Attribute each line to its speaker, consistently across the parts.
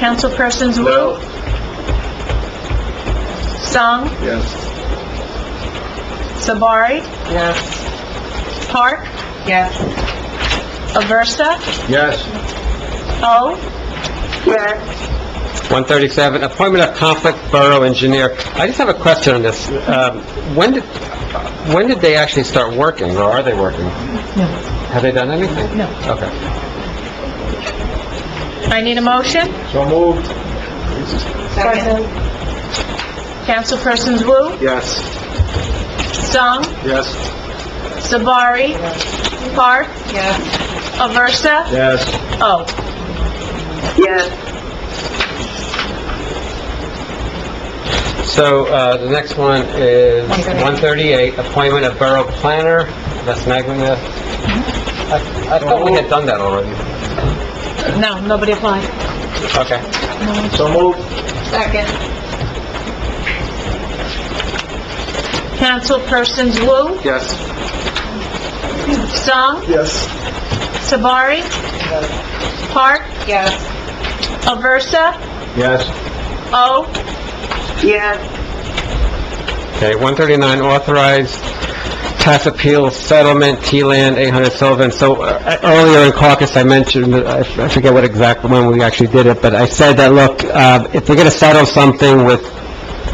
Speaker 1: Councilpersons Wu,
Speaker 2: No.
Speaker 1: Song,
Speaker 2: Yes.
Speaker 1: Sabari?
Speaker 3: Yes.
Speaker 1: Park?
Speaker 3: Yes.
Speaker 1: Aversa?
Speaker 2: Yes.
Speaker 1: O?
Speaker 3: Yes.
Speaker 4: 137, appointment of conflict borough engineer. I just have a question on this. Um, When did, when did they actually start working, or are they working?
Speaker 1: No.
Speaker 4: Have they done anything?
Speaker 1: No.
Speaker 4: Okay.
Speaker 1: I need a motion.
Speaker 2: So moved.
Speaker 3: Second.
Speaker 1: Councilpersons Wu,
Speaker 2: Yes.
Speaker 1: Song,
Speaker 2: Yes.
Speaker 1: Sabari? Park?
Speaker 3: Yes.
Speaker 1: Aversa?
Speaker 2: Yes.
Speaker 1: O.
Speaker 3: Yes.
Speaker 4: So, uh, the next one is 138, appointment of borough planner. That's Magna.
Speaker 1: Mm-hmm.
Speaker 4: I I thought we had done that already.
Speaker 1: No, nobody applied.
Speaker 4: Okay.
Speaker 2: So moved.
Speaker 3: Second.
Speaker 1: Councilpersons Wu,
Speaker 2: Yes.
Speaker 1: Song,
Speaker 2: Yes.
Speaker 1: Sabari? Park?
Speaker 3: Yes.
Speaker 1: Aversa?
Speaker 2: Yes.
Speaker 1: O.
Speaker 3: Yes.
Speaker 4: Okay, 139, authorized tax appeal settlement, T-Land, 800 Sullivan. So uh, earlier in caucus, I mentioned, I f- I forget what exact, when we actually did it, but I said that, look, uh, if we're going to settle something with,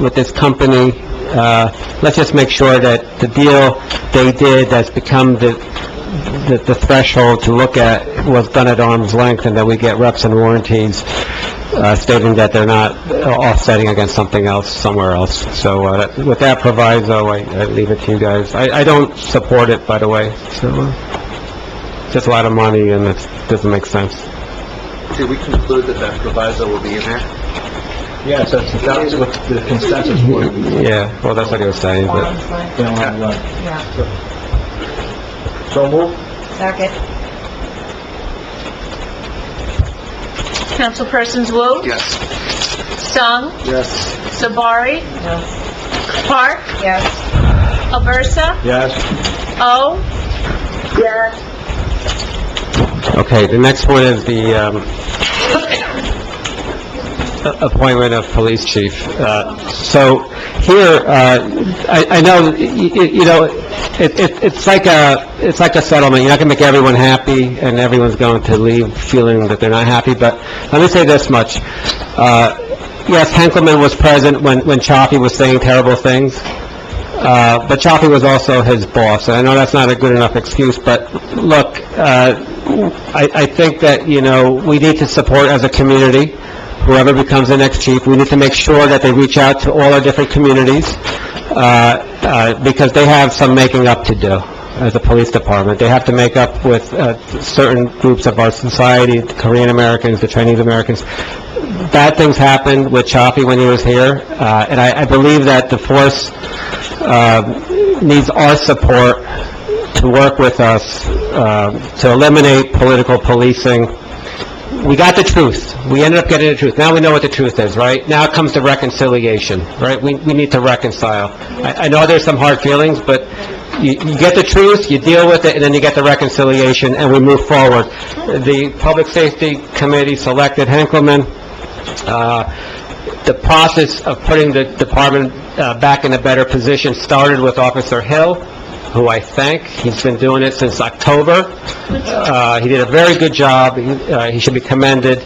Speaker 4: with this company, uh, let's just make sure that the deal they did that's become the, that the threshold to look at was done at arm's length, and that we get reps and warranties uh, stating that they're not offsetting against something else somewhere else. So uh, that- with that proviso, I I leave it to you guys. I I don't support it, by the way, so uh, it's just a lot of money, and it doesn't make sense.
Speaker 5: Did we conclude that that proviso will be in there?
Speaker 2: Yes, that's, that was what the consensus was.
Speaker 4: Yeah, well, that's what he was saying, but...
Speaker 2: Down the line.
Speaker 3: Yeah.
Speaker 2: So moved.
Speaker 3: Second.
Speaker 1: Councilpersons Wu,
Speaker 5: Yes.
Speaker 1: Song,
Speaker 2: Yes.
Speaker 1: Sabari?
Speaker 3: Yes.
Speaker 1: Park?
Speaker 3: Yes.
Speaker 1: Aversa?
Speaker 2: Yes.
Speaker 1: O.
Speaker 3: Yes.
Speaker 4: Okay, the next one is the um, a- appointment of police chief. Uh, So here, uh, I I know, y- y- you know, it- it- it's like a, it's like a settlement. You're not going to make everyone happy, and everyone's going to leave feeling that they're not happy, but let me say this much. Uh, Yes, Henkelman was present when when Chaffee was saying terrible things, uh, but Chaffee was also his boss, and I know that's not a good enough excuse, but look, uh, I, I think that, you know, we need to support as a community, whoever becomes the next chief, we need to make sure that they reach out to all our different communities, uh, uh, because they have some making up to do as a police department. They have to make up with uh, certain groups of our society, the Korean Americans, the Chinese Americans, bad things happened with Chaffee when he was here, uh, and I, I believe that the force, uh, needs our support to work with us, um to eliminate political policing. We got the truth. We ended up getting the truth. Now we know what the truth is, right? Now comes the reconciliation, right? We, we need to reconcile. I, I know there's some hard feelings, but you, you get the truth, you deal with it, and then you get the reconciliation, and we move forward. The Public Safety Committee selected Henkelman. Uh, the process of putting the department uh, back in a better position started with Officer Hill, who I thank. He's been doing it since October. Uh, He did a very good job. He uh, he should be commended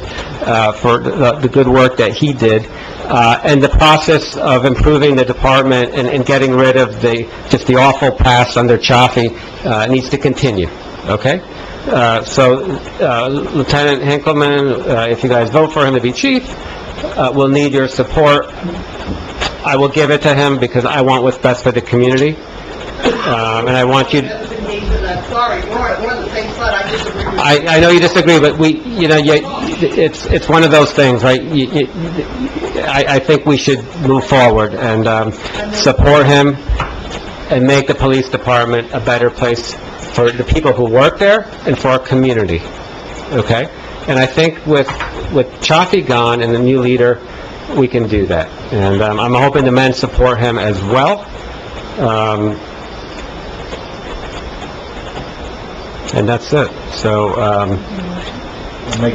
Speaker 4: uh, for the the good work that he did. Uh, And the process of improving the department and and getting rid of the, just the awful past under Chaffee uh, needs to continue, okay? Uh, So uh, Lieutenant Henkelman, uh, if you guys vote for him to be chief, uh, will need your support. I will give it to him because I want what's best for the community, Um, and I want you,
Speaker 6: I'm sorry, we're, we're on the same side, I disagree with you.
Speaker 4: I I know you disagree, but we, you know, you- it's it's one of those things, right? You- you- I I think we should move forward and um, support him and make the police department a better place for the people who work there and for our community. okay? And I think with, with Chaffee gone and the new leader, we can do that. And um, I'm hoping the men support him as well. Um, And that's it. So, um,
Speaker 2: Make